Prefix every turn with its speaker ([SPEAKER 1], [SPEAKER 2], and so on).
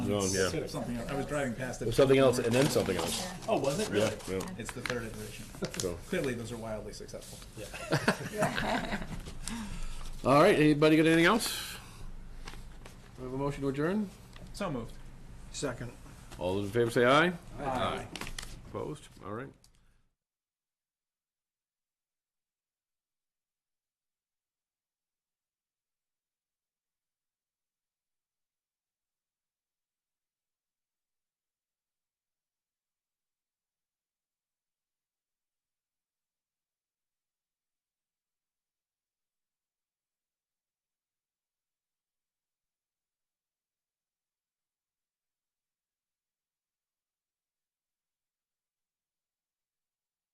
[SPEAKER 1] zone, yeah.
[SPEAKER 2] Something else. I was driving past
[SPEAKER 1] There's
[SPEAKER 2] it.
[SPEAKER 1] something else and then something else,
[SPEAKER 2] Oh, was it
[SPEAKER 1] yeah,
[SPEAKER 2] really?
[SPEAKER 1] yeah,
[SPEAKER 2] It's the third iteration.
[SPEAKER 1] so.
[SPEAKER 2] Clearly, those are wildly successful.
[SPEAKER 1] All right, anybody got anything else? We have a motion to adjourn?
[SPEAKER 2] So moved.
[SPEAKER 3] Second.
[SPEAKER 1] All those in favor say aye.
[SPEAKER 2] Aye.
[SPEAKER 1] Opposed? All right.